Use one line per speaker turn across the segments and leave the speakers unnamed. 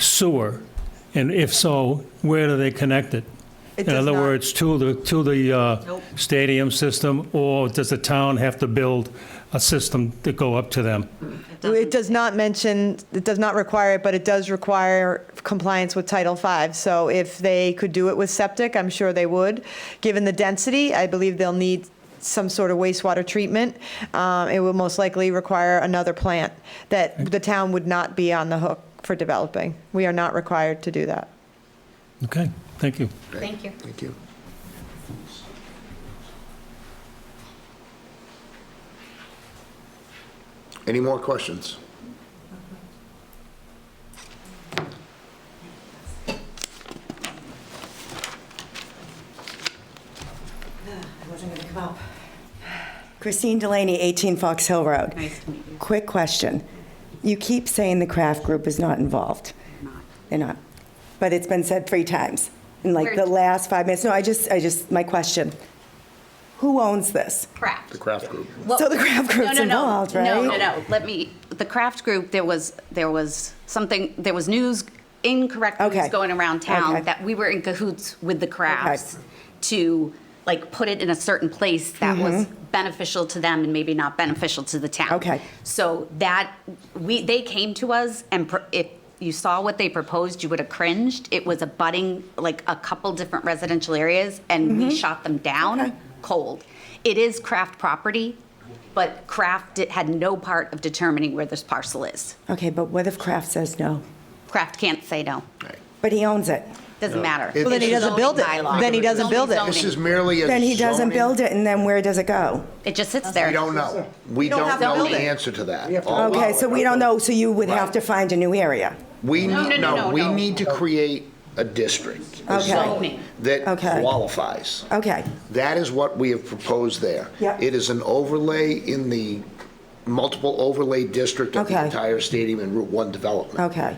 sewer? And if so, where do they connect it?
It
In
does
other
not.
words, to the, to the uh,
Nope.
stadium system, or does the town have to build a system to go up to them?
It does not mention, it does not require it, but it does require compliance with Title V. So if they could do it with septic, I'm sure they would. Given the density, I believe they'll need some sort of wastewater treatment. Um, It will most likely require another plant that the town would not be on the hook for developing. We are not required to do that.
Okay, thank you.
Thank you.
Thank you. Any more questions?
wasn't gonna come up. Christine Delaney, 18 Fox Hill Road.
Nice to meet you.
Quick question. You keep saying the craft group is not involved. They're not. But it's been said three times in like the
Where-
last five minutes. No, I just, I just, my question. Who owns this?
Craft.
The craft group.
Well-
So the craft group's
No, no, no.
involved,
No, no,
right?
no. Let me, the craft group, there was, there was something, there was news, incorrect news
Okay.
going around
Okay.
town that we were in cahoots with the crafts to like put it in a certain place that was
Mm-hmm.
beneficial to them and maybe not beneficial to the town.
Okay.
So that, we, they came to us and pro- if you saw what they proposed, you would have cringed. It was abutting like a couple different residential areas and we shot them down cold. It is craft property, but craft di- had no part of determining where this parcel is.
Okay, but what if Kraft says no?
Craft can't say no.
But he owns it.
Doesn't matter.
Well,
then he
It's
doesn't
zoning
build it.
bylaw.
Then he doesn't
Zoning,
build it.
zoning.
This
This is merely a
Then he doesn't
zoning-
build it, and then where does it go?
It just sits there.
We don't know. We
don't
don't
have to
know
build
the
it.
answer to that.
Okay, so we don't know, so you would have
Right.
to find a new area.
We,
No,
need-
no, no,
no,
no,
we
no.
need to create a district a
Okay.
zone that
Okay.
qualifies.
Okay,
That is what we have proposed there.
Yep.
It is an overlay in the multiple overlay district of the
Okay.
entire stadium and Route 1 development.
okay,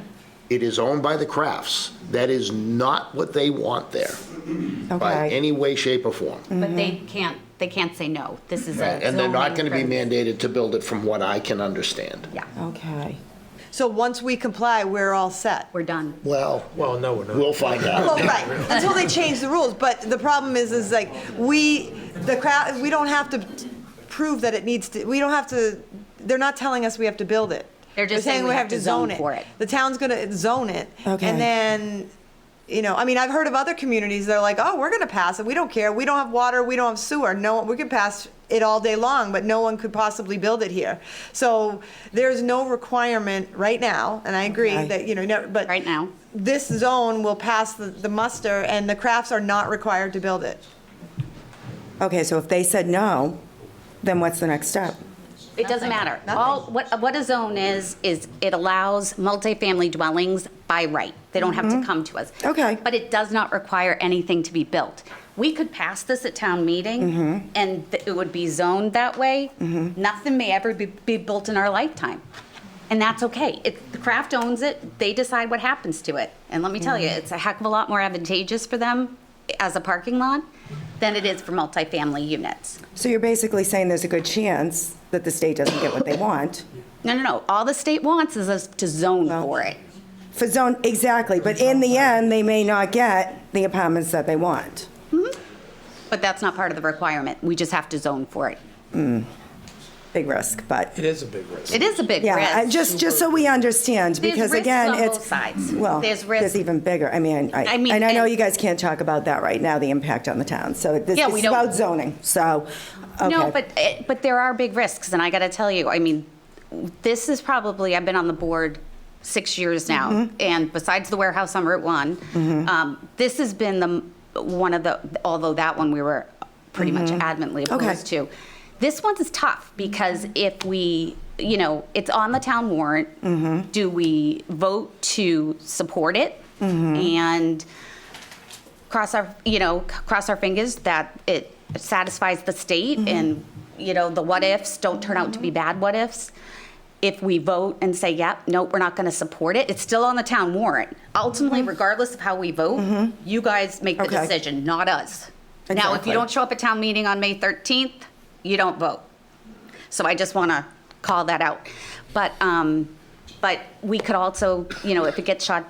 It is owned by the Crafts. That is not what they want there by
okay.
any way, shape, or form.
But they can't, they can't say no. This is a.
And they're not going to be
zoning prohibition.
mandated to build it from what I can understand.
Yeah,
Okay.
So once we comply, we're all set.
we're done.
Well,
Well, no, we're not.
we'll find
Well,
out.
right, until they change the rules, but the problem is, is like, we, the crowd, we don't have to prove that it needs to, we don't have to, they're not telling us we have to build it.
They're just saying we have to zone for it.
The town's gonna zone it.
Okay.
And then, you know, I mean, I've heard of other communities that are like, oh, we're gonna pass it, we don't care, we don't have water, we don't have sewer, no, we could pass it all day long, but no one could possibly build it here. So there's no requirement right now, and I agree
Okay.
that, you know, no- but
Right now.
this zone will pass the, the muster, and the crafts are not required to build it.
Okay, so if they said no, then what's the next step?
It doesn't matter. All, what, what a zone is, is it allows multifamily dwellings by right. They don't have to come to us.
Okay.
But it does not require anything to be built. We could pass this at town meeting, and th- it would be zoned that way. Nothing may ever be, be built in our lifetime. And that's okay. It, the craft owns it, they decide what happens to it. And let me tell you, it's a heck of a lot more advantageous for them as a parking lot than it is for multifamily units.
So you're basically saying there's a good chance that the state doesn't get what they want
No, no, no. All the state wants is us to zone
Well-
for it.
for zone, exactly, but in the end, they may not get the apartments that they want.
But that's not part of the requirement. We just have to zone for it.
Big risk, but,
It is a big risk.
It is a big risk.
yeah, and just, just so we understand,
There's
because
risks
again,
on
it's.
both sides.
Well,
There's
there's
risk.
even bigger, I mean, I,
I mean,
and I know
and-
you guys can't talk about that right now, the impact on the town, so this
Yeah, we
is
don't-
about zoning, so, okay.
No, but, eh, but there are big risks, and I got to tell you, I mean, this is probably, I've been on the board six years
Mm-hmm.
now, and besides the warehouse on Route 1, um, this has been the, m- one of the, although that one we were pretty much adamantly
Mm-hmm. Okay.
opposed to. This one's is tough, because if we, you know, it's on the town
Mm-hmm.
warrant, do we vote to support it?
Mm-hmm.
And cross our, you know, c- cross our fingers that it satisfies the state
Mm-hmm.
and, you know, the what ifs don't turn out to be bad what ifs. If we vote and say, yep, no, we're not going to support it, it's still on the town warrant. Ultimately, regardless of how we vote, you guys make the
Mm-hmm. Okay.
decision, not us. Now, if you
Exactly.
don't show up at town meeting on May 13th, you don't vote. So I just want to call that out. But, um, but we could also, you know, if it gets shot down.